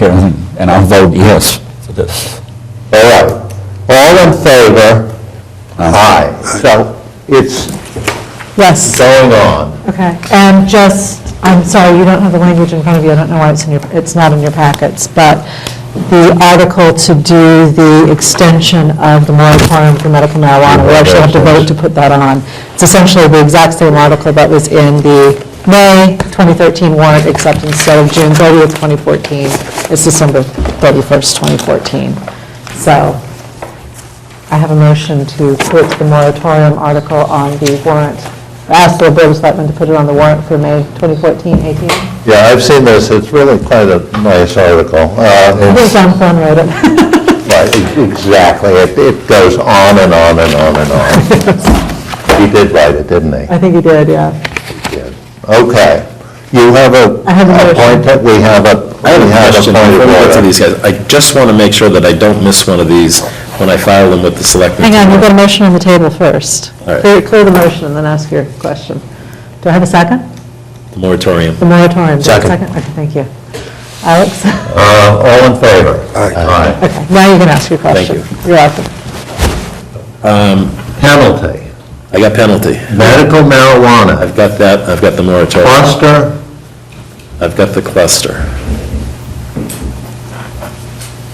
hearing, and I'll vote yes for this. All right. All in favor? Aye. So it's Yes, going on. okay. And just, I'm sorry, you don't have the language in front of you, I don't know why it's in your, it's not in your packets, but the article to do the extension of the moratorium for medical marijuana, we actually have to vote to put that on. It's essentially the exact same article that was in the May 2013 warrant, except instead of June 30th, 2014, it's December 31st, 2014. So I have a motion to put the moratorium article on the warrant, ask the Board of Selectmen to put it on the warrant for May 2014, 18. I Yeah, I've seen this, it's really quite a nice article. Uh, think it's- John Thorne wrote it. right, e- Exactly, it it goes on and on and on and on. He did write it, didn't he? I think he did, yeah. Okay. You have a I have a motion. appointment, we have a, I have we a have a question point of before we get to order. these guys. I just want to make sure that I don't miss one of these when I file them with the selectmen. Hang on, we've got a motion on the table first. All right. Clear clear the motion and then ask your question. Do I have a second? The moratorium. The moratorium. do I have a Second. Okay, thank you. Alex? Uh, All in favor? Aye. Okay, now you can ask your Thank question. Thank you. You're welcome. Penalty, I got penalty. medical marijuana, I've got that, I've got the moratorium. cluster, I've got the cluster.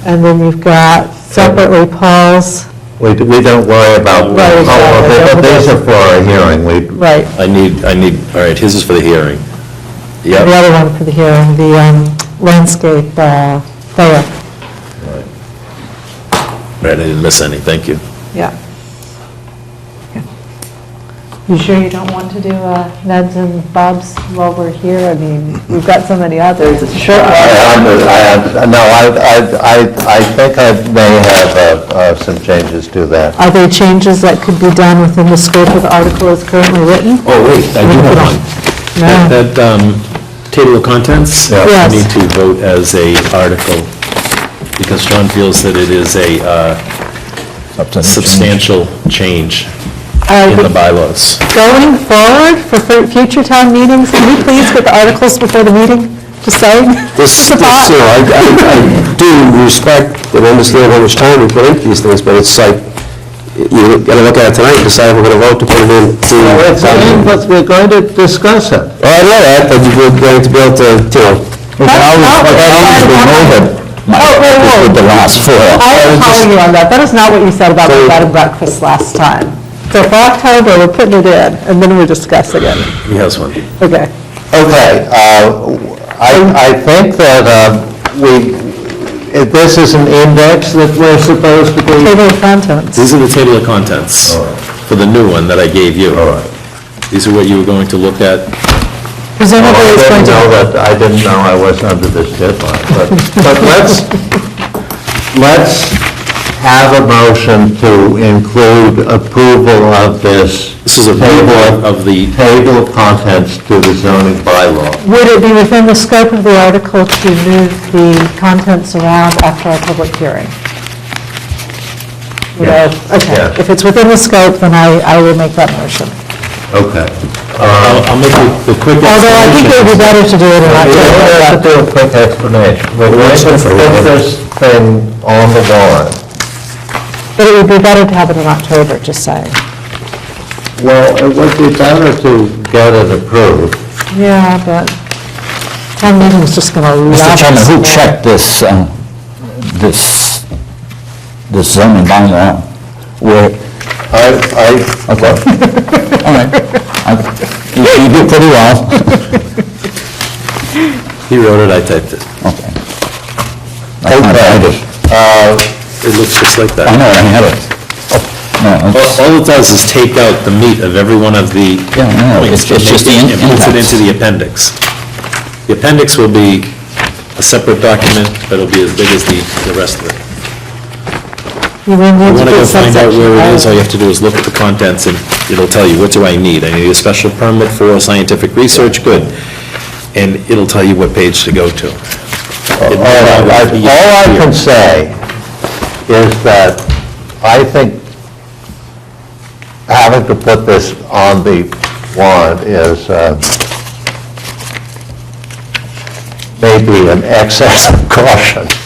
And then you've got separately Paul's, We, we don't worry about Right, that. Oh, exactly. okay, but these are for our hearing, we, right, I need, I need, all right, his is for the hearing. the Yep, other one for the hearing, the um, landscape uh, layout. right, I didn't miss any, thank you. Yeah. You sure you don't want to do uh, Ned's and Bob's while we're here? I mean, we've got so many others. It's a short one. I, under- I, under- no, I, I- I, I think I may have uh, uh, some changes to that. Are there changes that could be done within the scope of the article as currently written? Oh, wait, I do have one. No. That, that, um, table of contents? Yeah. Yes. We need to vote as a article, because John feels that it is a uh, substantial change All in the right, bylaws. Uh, Going forward for fu- future town meetings, can you please get the articles before the meeting? Just saying. This, It's a this, thought. you know, I, I I do respect and understand how much time we put into these things, but it's like, you gotta look at it tonight, and decide if we're gonna vote to put it in. to- Well, it's in, but we're going to discuss it. Well, I know that, but you're going to be able to, you know, We can always, we can always remove it, Oh, wait, Mike, wait. with the last four. I am calling you on that. That is not what you said about the bed and breakfast last time. So for October, we're putting it in, and then we're discussing it. He has one. Okay. Okay, uh, I, I think that uh, we, if this is an index that we're supposed to be. Table of contents. These are the table of contents for the new one that I gave you. All right. These are what you were going to look at. Presumably I it's going didn't to, know that, I didn't know I was under this deadline, but, but let's, let's have a motion to include approval of this. This is a table table of the, Table of contents to the zoning bylaw. would it be within the scope of the article to move the contents around after our public hearing? You know, Yeah. Okay, if it's within the scope, then I, I will make that motion. Okay. I'll I'll make the the quick Although I think it would be explanation. better to do it in We October. have to do a quick explanation. We're going to put this thing on the warrant. But it would be better to have it in October, just saying. Well, it would be better to get it approved. Yeah, but town meeting's just going to love Mr. us. Chairman, who checked this, uh, this, this zoning bylaw? Where, I, I, okay, all right. I- You you do pretty well. He wrote it, I typed it. Okay. That's not bad. Uh, It looks just like I that. know, I had it. No, All it's- all it does is take out the meat of every one of the Yeah, no, points. it's- it's just the and puts it impacts. into the appendix. The appendix will be a separate document, but it'll be as big as the, the rest of it. You mean You need to want to put go find out subsection where it is, all I. you have to do is look at the contents, and it'll tell you, what do I need? I need a special permit for scientific research, good. And it'll tell you what page to go to. It All might I, not I- be all I here. can say is that I think having to put this on the warrant is, uh, maybe an excess of caution.